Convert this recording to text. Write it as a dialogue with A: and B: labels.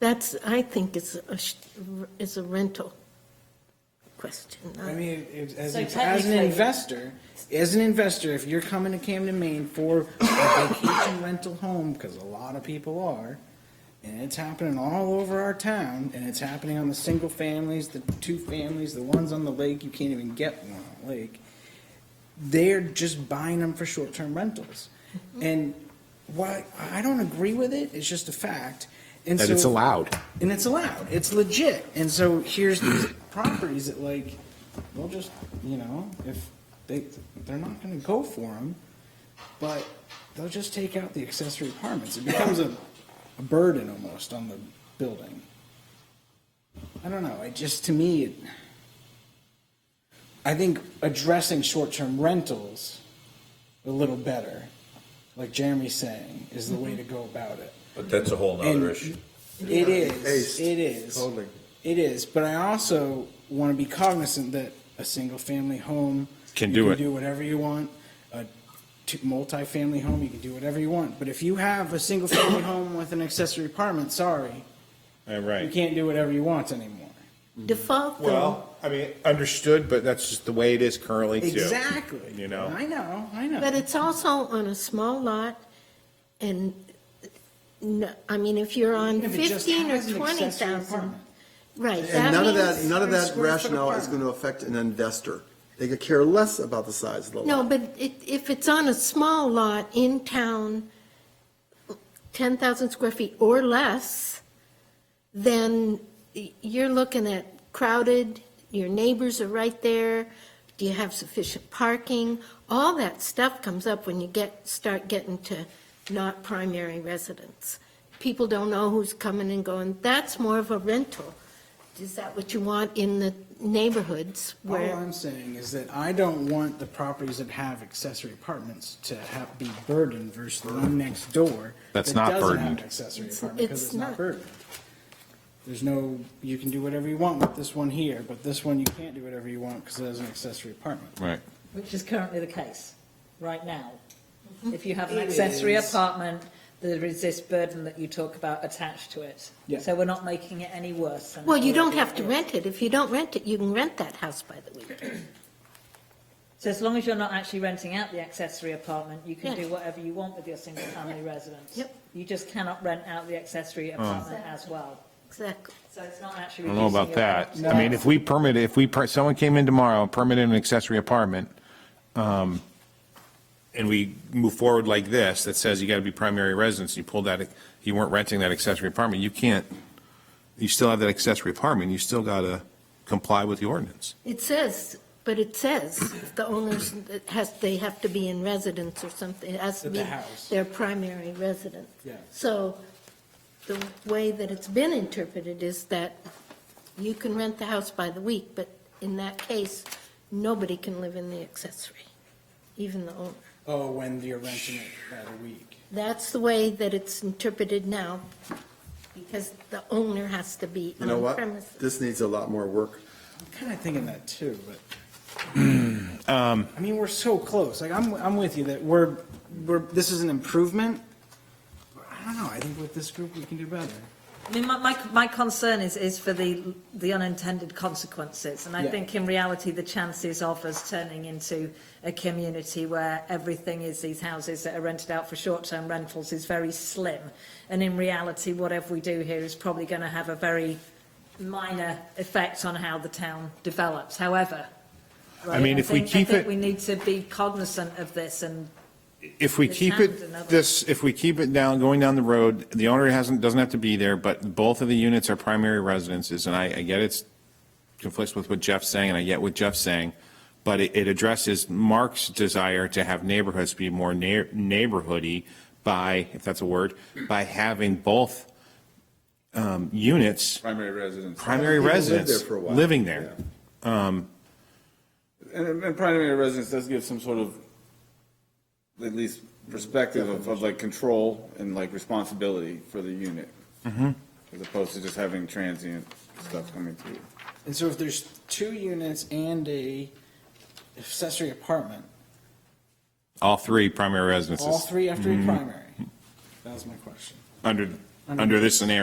A: That's, I think is a, sh- is a rental question. not-
B: I mean, if- as,
C: So
B: as an
C: technically-
B: investor, as an investor, if you're coming to Camden, Maine for a vacation rental home, because a lot of people are, and it's happening all over our town, and it's happening on the single families, the two families, the ones on the lake, you can't even get one on the lake. They're just buying them for short-term rentals.
C: Mm-hmm.
B: And why, I don't agree with it, it's just a fact. And
D: that it's
B: so-
D: allowed.
B: and it's allowed. It's legit. And so here's these properties that like, they'll just, you know, if they, they're not gonna go for them, but they'll just take out the accessory apartments. It becomes a, a burden almost on the building. I don't know. It just, to me, it, I think addressing short-term rentals a little better, like Jeremy's saying, is the way to go about it.
E: But that's a whole
B: And
E: nother issue.
B: It is,
D: Taste.
B: it is,
D: Totally.
B: it is, but I also want to be cognizant that a single-family home.
F: Can
B: you
F: do it.
B: Do whatever you want, a two, multi-family home, you can do whatever you want, but if you have a single-family home with an accessory apartment, sorry,
F: All
B: you
F: right.
B: can't do whatever you want anymore.
A: Default though,
D: Well, I mean, understood, but that's just the way it is currently too.
B: Exactly.
D: You know.
B: I know, I know.
A: but it's also on a small lot and, no- I mean, if you're on
B: Even if it just
A: fifteen or
B: has an
A: twenty
B: accessory
A: thousand.
B: apartment.
A: Right.
G: And none of that,
A: means-
G: none of that
B: Square foot
G: rationale is
B: apartment.
G: going to affect an investor. They could care less about the size of the lot.
A: No, but it, if it's on a small lot in town, ten thousand square feet or less, then y- you're looking at crowded, your neighbors are right there, do you have sufficient parking? All that stuff comes up when you get, start getting to not primary residence. People don't know who's coming and going, that's more of a rental. Is that what you want in the neighborhoods
B: All
A: where?
B: I'm saying is that I don't want the properties that have accessory apartments to have, be burdened versus the one next door.
F: That's
B: that
F: not
B: doesn't have
F: burdened.
B: an Accessory
A: It's-
B: apartment, because
A: it's
B: it's not
A: not.
B: burdened. There's no, you can do whatever you want with this one here, but this one you can't do whatever you want because it has an accessory apartment.
F: Right.
C: Which is currently the case, right now. If you have an accessory apartment, there is this burden that you talk about attached to it.
B: Yeah.
C: So we're not making it any worse. than it
A: Well, you don't
C: already
A: have to
C: is.
A: rent it. If you don't rent it, you can rent that house by the weekend.
C: So as long as you're not actually renting out the accessory apartment, you can
A: Yeah.
C: do whatever you want with your single family residence.
A: Yep.
C: You just cannot rent out the accessory apartment as well.
A: Exactly.
C: So it's not
F: Um. I
C: actually.
F: don't know
C: reducing
F: about
C: your
F: that.
C: rent.
F: I mean, if we permit, if we, per- someone came in tomorrow, permitted an accessory apartment, um, and we move forward like this, that says you got to be primary residence, you pulled that, you weren't renting that accessory apartment, you can't, you still have that accessory apartment, you still got to comply with the ordinance.
A: It says, but it says the owners it has, they have to be in residence or something. It has to
B: At the
A: be
B: house.
A: their primary residence.
B: Yeah.
A: So the way that it's been interpreted is that you can rent the house by the week, but in that case, nobody can live in the accessory, even the owner.
B: Oh, when you're renting it by the week.
A: That's the way that it's interpreted now, because the owner has to be
G: You know
A: on
G: what?
A: premises.
G: This needs a lot more work.
B: I'm kind of thinking that too, but.
F: Um,
B: I mean, we're so close. Like, I'm, I'm with you that we're, we're, this is an improvement. But I don't know. I think with this group, we can do better.
C: I mean, my, my, my concern is, is for the, the unintended consequences. And I
B: Yeah.
C: think in reality, the chances of us turning into a community where everything is these houses that are rented out for short-term rentals is very slim. And in reality, whatever we do here is probably going to have a very minor effect on how the town develops. However, right,
F: mean, if we
C: think-
F: keep
C: I think
F: it-
C: we need to be cognizant of this and
F: If we
C: It's
F: keep
C: not another-
F: it, this, if we keep it down, going down the road, the owner hasn't, doesn't have to be there, but both of the units are primary residences, and I, I get it's conflicts with what Jeff's saying, and I get what Jeff's saying, but it, it addresses Mark's desire to have neighborhoods be more neigh- neighborhoody by, if that's a word, by having both, um, units,
H: primary residence.
F: primary
G: People live
F: residents,
G: there for a while.
F: living there. Um,
H: And, and primary residence does give some sort of, at least perspective of, of like control and like responsibility for the unit. As opposed to just having transient stuff coming through.
B: And so if there's two units and a accessory apartment,
F: all three primary
B: all
F: residences,
B: three have to be primary? That was my question.
F: under, under this scenario.